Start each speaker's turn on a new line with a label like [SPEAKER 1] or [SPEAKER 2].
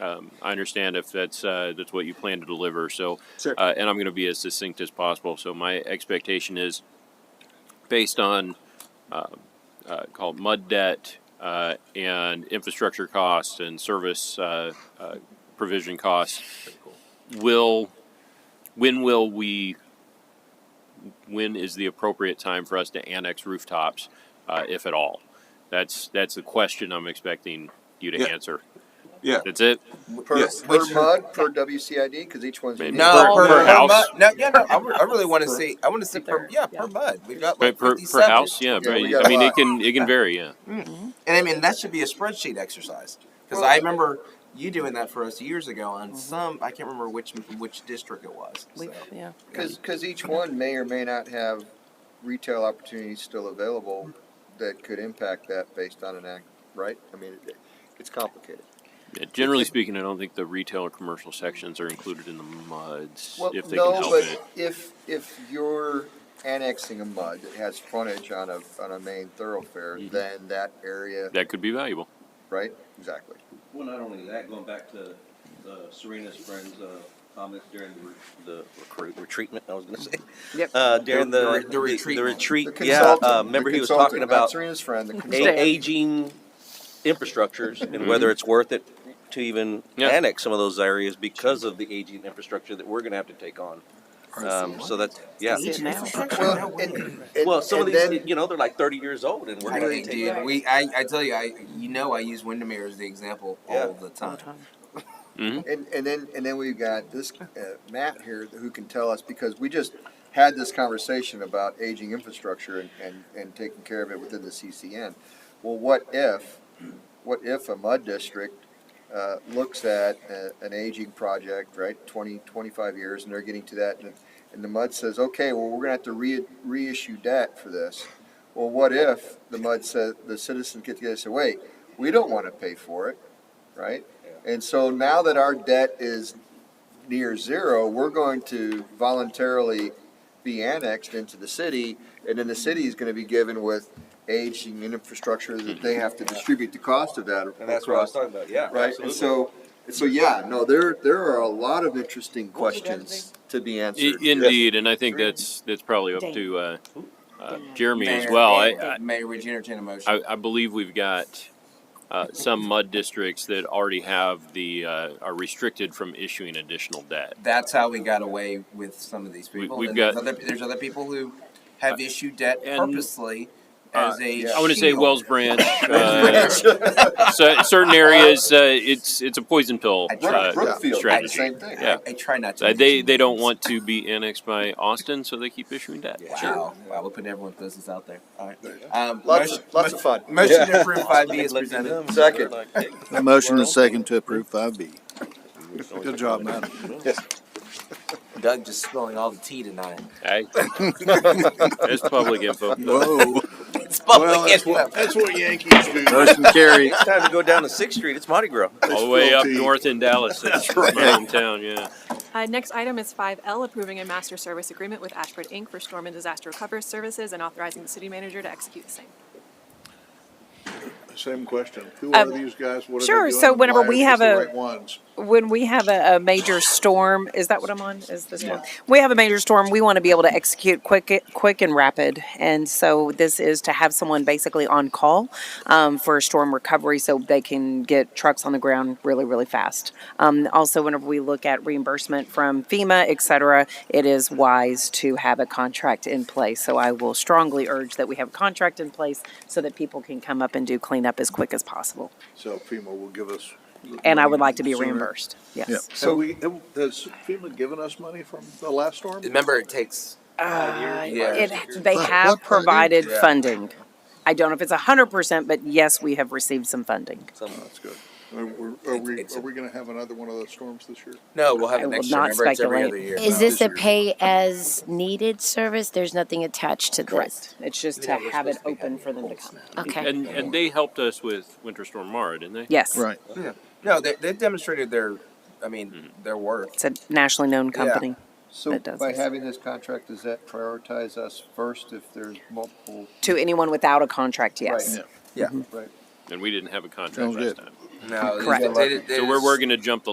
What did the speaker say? [SPEAKER 1] um, I understand if that's, uh, that's what you plan to deliver, so.
[SPEAKER 2] Sure.
[SPEAKER 1] Uh, and I'm gonna be as succinct as possible, so my expectation is based on, uh, uh, called mud debt, uh, and infrastructure costs and service, uh, uh, provision costs. Will, when will we, when is the appropriate time for us to annex rooftops, uh, if at all? That's, that's the question I'm expecting you
[SPEAKER 2] Yeah.
[SPEAKER 1] to answer.
[SPEAKER 2] Yeah.
[SPEAKER 1] That's it?
[SPEAKER 3] Per,
[SPEAKER 2] Yes.
[SPEAKER 3] per mud, per WCID, because each one's.
[SPEAKER 1] Maybe.
[SPEAKER 3] unique.
[SPEAKER 4] No,
[SPEAKER 1] Per-
[SPEAKER 4] per,
[SPEAKER 1] per
[SPEAKER 4] per
[SPEAKER 1] house.
[SPEAKER 4] mud. No, yeah, no. I, re- I really want to
[SPEAKER 3] Per-
[SPEAKER 4] see. I want to see per. Yeah, per mud. We've got
[SPEAKER 1] Per,
[SPEAKER 4] like
[SPEAKER 1] per, per
[SPEAKER 4] 57.
[SPEAKER 1] house, yeah,
[SPEAKER 3] Yeah,
[SPEAKER 1] right.
[SPEAKER 3] we got
[SPEAKER 1] I mean,
[SPEAKER 3] a
[SPEAKER 1] it
[SPEAKER 3] lot.
[SPEAKER 1] can, it can vary, yeah.
[SPEAKER 4] And I mean that should be a spreadsheet exercise because I remember you doing that for us years ago on some. I can't remember which which district it was. So.
[SPEAKER 5] We've, yeah.
[SPEAKER 3] Because, because each one may or may not have retail opportunities still available that could impact that based on an act, right? I mean, it- it's complicated.
[SPEAKER 1] Yeah, Generally speaking, I don't think the retail or commercial sections are included in the MUDs,
[SPEAKER 3] Well,
[SPEAKER 1] if they can
[SPEAKER 3] no,
[SPEAKER 1] help it.
[SPEAKER 3] but if, if you're annexing a mud that has frontage on a, on a main thoroughfare,
[SPEAKER 6] Mm-hmm.
[SPEAKER 3] then that area,
[SPEAKER 1] That could be valuable.
[SPEAKER 3] right? Exactly.
[SPEAKER 6] Well, not only that, going back to uh, Serena's friend's uh, comments during the re- the recruit, retreatment, I was gonna say.
[SPEAKER 5] Yep.
[SPEAKER 6] Uh, during
[SPEAKER 4] The- the
[SPEAKER 6] the,
[SPEAKER 4] re- the
[SPEAKER 6] the
[SPEAKER 4] retreat.
[SPEAKER 6] the retreat,
[SPEAKER 3] The
[SPEAKER 6] yeah,
[SPEAKER 3] consultant-
[SPEAKER 6] uh,
[SPEAKER 3] the
[SPEAKER 6] remember he was
[SPEAKER 3] consultant,
[SPEAKER 6] talking
[SPEAKER 3] not
[SPEAKER 6] about a-
[SPEAKER 3] Serena's friend, the consultant.
[SPEAKER 6] aging infrastructures and whether it's worth it to even
[SPEAKER 1] Yeah.
[SPEAKER 6] annex some of those areas because of the aging infrastructure that we're gonna have to take on. Um, so that's, yeah.
[SPEAKER 5] See it now.
[SPEAKER 3] Well, and- and-
[SPEAKER 6] Well, some of
[SPEAKER 3] and then-
[SPEAKER 6] these, you know, they're like thirty years old and we're
[SPEAKER 4] I
[SPEAKER 6] gonna
[SPEAKER 4] really
[SPEAKER 6] take.
[SPEAKER 4] did. We, I, I tell you, I, you know, I use Windermere as the example
[SPEAKER 6] Yeah.
[SPEAKER 4] all the
[SPEAKER 5] All
[SPEAKER 4] time.
[SPEAKER 5] the time.
[SPEAKER 3] And, and then, and then we've got this, uh, Matt here who can tell us, because we just had this conversation about aging infrastructure and, and, and taking care of it within the CCN. Well, what if, what if a mud district, uh, looks at a, an aging project, right, 20, 25 years, and they're getting to that, and, and the mud says, okay, well, we're gonna have to re, reissue debt for this. Well, what if the mud says, the citizens get together and say, wait, we don't wanna pay for it, right? And so now that our debt is near zero, we're going to voluntarily be annexed into the city, and then the city is gonna be given with aging and infrastructure that they have to distribute the cost of that
[SPEAKER 6] Mm-hmm. And that's what I was
[SPEAKER 3] across
[SPEAKER 6] talking about, yeah.
[SPEAKER 3] right?
[SPEAKER 6] absolutely.
[SPEAKER 3] And so, and so, yeah, no, there, there are a lot of interesting questions to be
[SPEAKER 1] I-
[SPEAKER 3] answered.
[SPEAKER 1] Indeed, and I think that's, that's probably up to, uh, uh, Jeremy as well. I,
[SPEAKER 4] Mayor,
[SPEAKER 1] I,
[SPEAKER 4] Mayor, would you entertain a motion?
[SPEAKER 1] I, I believe we've got, uh, some mud districts that already have the, uh, are restricted from issuing additional debt.
[SPEAKER 4] That's how we got away with some of these people.
[SPEAKER 1] we've
[SPEAKER 4] And there's
[SPEAKER 1] got-
[SPEAKER 4] other, there's other people who have issued debt
[SPEAKER 1] and-
[SPEAKER 4] purposely
[SPEAKER 1] uh,
[SPEAKER 4] as a.
[SPEAKER 3] I
[SPEAKER 1] I want to say
[SPEAKER 4] shield.
[SPEAKER 1] Wells Branch, uh, cer- certain areas, uh, it's, it's a poison pill,
[SPEAKER 4] I tried-
[SPEAKER 1] uh,
[SPEAKER 3] Brook-
[SPEAKER 1] strategy.
[SPEAKER 3] Brookfield, did the same thing.
[SPEAKER 1] Yeah.
[SPEAKER 4] I try not to.
[SPEAKER 1] Uh, they
[SPEAKER 4] mention
[SPEAKER 1] they don't
[SPEAKER 4] names.
[SPEAKER 1] want to be annexed by Austin, so they keep issuing debt.
[SPEAKER 4] Wow, wow, we're putting everyone's business out there. All right. Um,
[SPEAKER 3] Lots,
[SPEAKER 4] motion,
[SPEAKER 3] of- lots of fun.
[SPEAKER 4] motion to approve five B is presented.
[SPEAKER 3] Second.
[SPEAKER 7] A motion and a second to approve five B. Good job, man.
[SPEAKER 4] Doug just spilling all the tea tonight.
[SPEAKER 1] I, that's public info.
[SPEAKER 7] Whoa.
[SPEAKER 4] It's
[SPEAKER 7] Well, that's what, that's what Yankees do. Motion carried.
[SPEAKER 6] Next time you go down to Sixth Street, it's Mardi Gras.
[SPEAKER 1] All the way up
[SPEAKER 7] filthy.
[SPEAKER 1] north in Dallas. That's my
[SPEAKER 7] right.
[SPEAKER 1] hometown, yeah.
[SPEAKER 8] Uh, next item is five L, approving a master service agreement with Ashford Inc. for storm and disaster recovery services and authorizing the city manager to execute the same.
[SPEAKER 7] Same question. Who are
[SPEAKER 5] Um,
[SPEAKER 7] these guys? What are they
[SPEAKER 5] sure,
[SPEAKER 7] doing
[SPEAKER 5] so
[SPEAKER 7] and
[SPEAKER 5] whenever
[SPEAKER 7] why
[SPEAKER 5] we
[SPEAKER 7] is this
[SPEAKER 5] have
[SPEAKER 7] the
[SPEAKER 5] a-
[SPEAKER 7] right ones?
[SPEAKER 5] when we have a, a major storm, is that what I'm on? Is this one? We have a major storm. We want to be able to execute quick, quick and rapid, and so this is to have someone basically on call um, for storm recovery, so they can get trucks on the ground really, really fast. Um, also, whenever we look at reimbursement from FEMA, et cetera, it is wise to have a contract in place. So I will strongly urge that we have a contract in place so that people can come up and do cleanup as quick as possible.
[SPEAKER 7] So FEMA will give us.
[SPEAKER 5] And I would like to be
[SPEAKER 7] sooner.
[SPEAKER 5] reimbursed. Yes.
[SPEAKER 7] Yeah. So we, has FEMA given us money from the last storm?
[SPEAKER 4] Remember, it takes. yeah.
[SPEAKER 5] Uh, It, they
[SPEAKER 7] What-
[SPEAKER 5] have
[SPEAKER 7] what part?
[SPEAKER 5] provided
[SPEAKER 4] Yeah.
[SPEAKER 5] funding. I don't know if it's a hundred percent, but yes, we have received some funding.
[SPEAKER 6] Some-
[SPEAKER 7] That's good. Are we- are we,
[SPEAKER 4] It's-
[SPEAKER 7] are we gonna have another one of those storms this year?
[SPEAKER 4] No, we'll have
[SPEAKER 5] I
[SPEAKER 4] it
[SPEAKER 5] will
[SPEAKER 4] next year.
[SPEAKER 5] not
[SPEAKER 4] Remember, it's every
[SPEAKER 5] speculate.
[SPEAKER 4] other year.
[SPEAKER 9] Is this
[SPEAKER 7] This
[SPEAKER 9] a
[SPEAKER 7] year.
[SPEAKER 9] pay as needed service? There's nothing attached to this?
[SPEAKER 5] Correct. It's just to
[SPEAKER 4] Yeah, we're
[SPEAKER 5] have it
[SPEAKER 4] supposed to be
[SPEAKER 5] open
[SPEAKER 4] having
[SPEAKER 5] for them to
[SPEAKER 4] polls
[SPEAKER 5] come.
[SPEAKER 4] now.
[SPEAKER 9] Okay.
[SPEAKER 1] And and they helped us with Winter Storm Mara, didn't they?
[SPEAKER 5] Yes.
[SPEAKER 4] No, they, they've demonstrated their, I mean,
[SPEAKER 1] Mm-hmm.
[SPEAKER 4] their worth.
[SPEAKER 5] It's a nationally known company.
[SPEAKER 3] So
[SPEAKER 5] That does
[SPEAKER 3] by
[SPEAKER 5] it.
[SPEAKER 3] having this contract, does that prioritize us first if there's multiple,
[SPEAKER 5] To anyone without a contract, yes.
[SPEAKER 3] Right.
[SPEAKER 4] Yeah.
[SPEAKER 3] right?
[SPEAKER 1] and we didn't have a contract
[SPEAKER 7] Sounds
[SPEAKER 1] last
[SPEAKER 7] good.
[SPEAKER 1] time.
[SPEAKER 4] No, they-
[SPEAKER 5] Correct.
[SPEAKER 4] they- they
[SPEAKER 1] So we're,
[SPEAKER 4] just-
[SPEAKER 1] we're gonna jump the